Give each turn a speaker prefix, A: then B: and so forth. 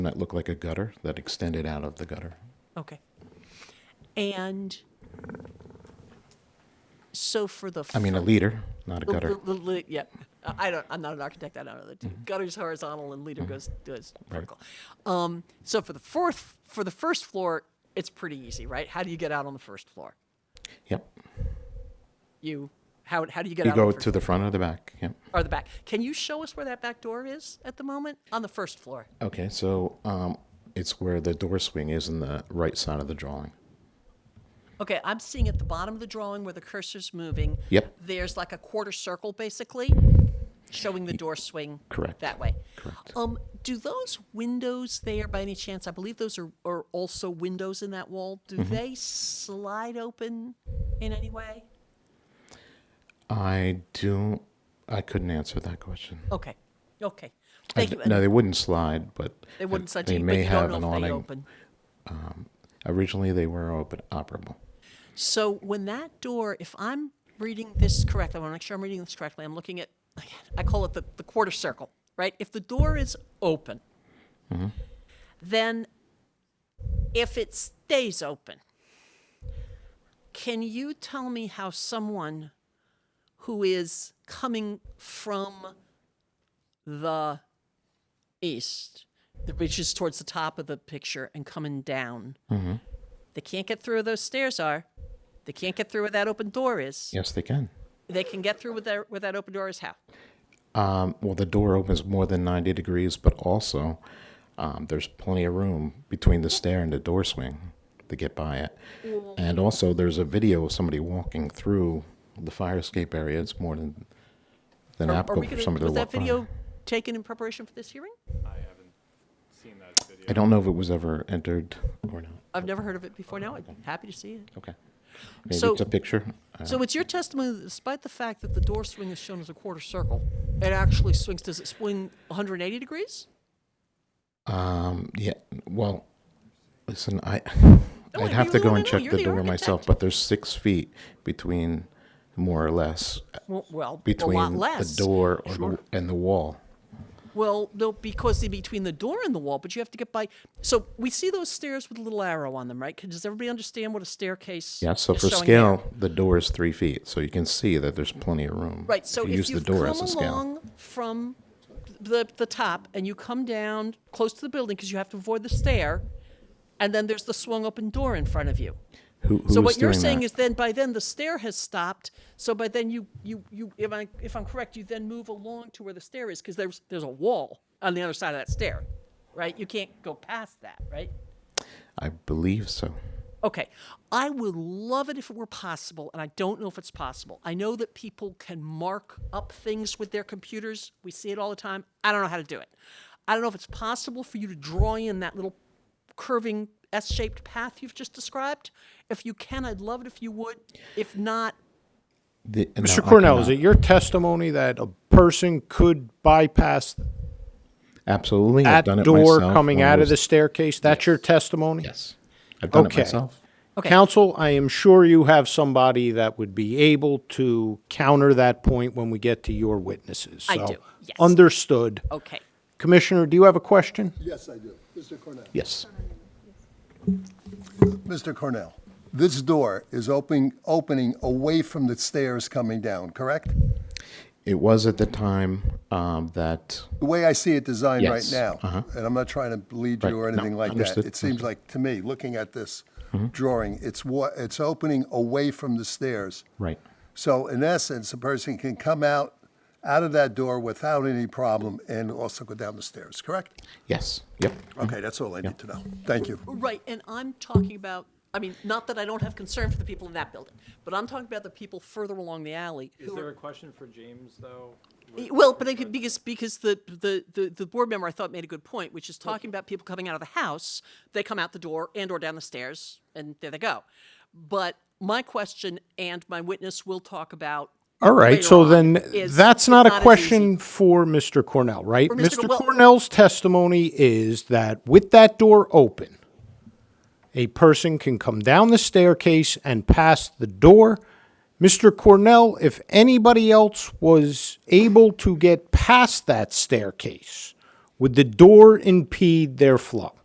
A: that looked like a gutter that extended out of the gutter.
B: Okay. And so for the.
A: I mean, a leader, not a gutter. Mm-hmm.
B: Yep. I don't, I'm not an architect, I don't know the two. Gutter's horizontal and leader goes, goes vertical. Um, So for the fourth, for the first floor, it's pretty easy, right? How do you get out on the first floor?
A: Yep.
B: You, how, how do you get
A: You
B: out? on
A: go
B: the first-
A: to the front or the back. Yep.
B: Or the back. Can you show us where that back door is at the moment? On the first floor?
A: Okay, so um, it's where the door swing is in the right side of the drawing.
B: Okay, I'm seeing at the bottom of the drawing where the cursor's moving.
A: Yep.
B: There's like a quarter circle, basically, showing the door swing.
A: correct.
B: That way.
A: Correct.
B: Um, do those windows there, by any chance, I believe those are, are also windows in that wall, do
A: Mm-hmm.
B: they slide open in any way?
A: I do. I couldn't answer that question.
B: Okay, okay.
A: I
B: Thank
A: d-
B: you.
A: no, they wouldn't slide, but
B: They wouldn't slide to
A: They
B: you, but
A: may
B: you
A: have
B: don't
A: an
B: know if they
A: awning.
B: open.
A: Originally, they were open, operable.
B: So when that door, if I'm reading this correctly, I want to make sure I'm reading this correctly. I'm looking at, again, I call it the, the quarter circle, right? If the door is open, then if it stays open, can you tell me how someone who is coming from the east, which is towards the top of the picture and coming down,
A: Mm-hmm.
B: they can't get through where those stairs are. They can't get through where that open door is.
A: Yes, they can.
B: They can get through with that, where that open door is how?
A: Um, well, the door opens more than 90 degrees, but also um, there's plenty of room between the stair and the door swing to get by it.
B: Mm-hmm.
A: And also, there's a video of somebody walking through the fire escape area. It's more than than
B: Are- Are
A: applicable
B: we
A: for
B: gonna,
A: somebody
B: was
A: to walk
B: that video
A: by.
B: taken in preparation for this hearing?
C: I haven't seen that video.
A: I don't know if it was ever entered or not.
B: I've never heard of it before now. I'm happy to see it.
A: Okay. Maybe
B: So-
A: it's a picture. Uh,
B: So it's your testimony that despite the fact that the door swing is shown as a quarter circle, it actually swings, does it swing 180 degrees?
A: um, yeah. Well, listen, I
B: No,
A: I'd
B: I
A: have to
B: really
A: go
B: wanna
A: and
B: know.
A: check
B: You're
A: the
B: the
A: door myself,
B: architect.
A: but there's six feet between, more or less,
B: Well, well a lot
A: between
B: less.
A: the door or the, and the wall.
B: Well, no, because they're between the door and the wall, but you have to get by. So we see those stairs with a little arrow on them, right? 'Cause Does everybody understand what a staircase?
A: Yeah. So
B: is
A: for
B: showing here?
A: scale, the door is three feet, so you can see that there's plenty of room.
B: Right, so
A: you
B: if
A: use the
B: you've
A: door
B: come
A: as a scale,
B: along from the, the top and you come down close to the building because you have to avoid the stair, and then there's the swung open door in front of you.
A: who, who
B: So
A: was
B: what you're
A: doing
B: saying
A: that?
B: is then by then the stair has stopped, so by then you, you, you, if I, if I'm correct, you then move along to where the stair is because there's, there's a wall on the other side of that stair, right? You can't go past that, right?
A: I believe so.
B: Okay. I would love it if it were possible, and I don't know if it's possible. I know that people can mark up things with their computers. We see it all the time. I don't know how to do it. I don't know if it's possible for you to draw in that little curving S shaped path you've just described. If you can, I'd love it if you would. If not,
A: The- no, I
D: Mr.
A: cannot.
D: Cornell, is it your testimony that a person could bypass
A: Absolutely. I've
D: that
A: done it
D: door
A: myself
D: coming
A: when I
D: out of the
A: was-
D: staircase? That's your testimony?
A: Yes. I've done it
D: Okay.
A: myself.
B: Okay.
D: Counsel, I am sure you have somebody that would be able to counter that point when we get to your witnesses.
B: I
D: So,
B: do, yes.
D: Understood.
B: okay.
D: Commissioner, do you have a question?
E: Yes, I do. Mr. Cornell.
A: Yes.
E: Mr. Cornell, this door is opening, opening away from the stairs coming down, correct?
A: It was at the time um, that
E: The way I see it designed right
A: Yes,
E: now,
A: uh-huh.
E: and I'm not trying to lead
A: Right,
E: you or
A: no,
E: anything like that.
A: understood,
E: It seems
A: understood. Mm-hmm.
E: like, to me, looking at this drawing, it's wa, it's opening away from the stairs.
A: right.
E: So in essence, a person can come out, out of that door without any problem and also go down the stairs, correct?
A: Yes. Yep.
E: Okay, that's all I need to know. Thank you.
B: Right, and I'm talking about, I mean, not that I don't have concern for the people in that building, but I'm talking about the people further along the alley
C: Is
B: who are
C: there a question for James, though?
B: Y- Well, but I could, because, because the, the, the, the board member I thought made a good point, which is talking about people coming out of the house, they come out the door and or down the stairs and there they go. But my question and my witness will talk about.
D: All right,
B: later
D: so
B: on
D: then
B: is-
D: that's
B: it's
D: not a
B: as easy.
D: question for Mr. Cornell, right?
B: For Mr.
D: Mr.
B: Well-
D: Cornell's testimony is that with that door open, a person can come down the staircase and pass the door. Mr. Cornell, if anybody else was able to get past that staircase, Would the door impede their flow?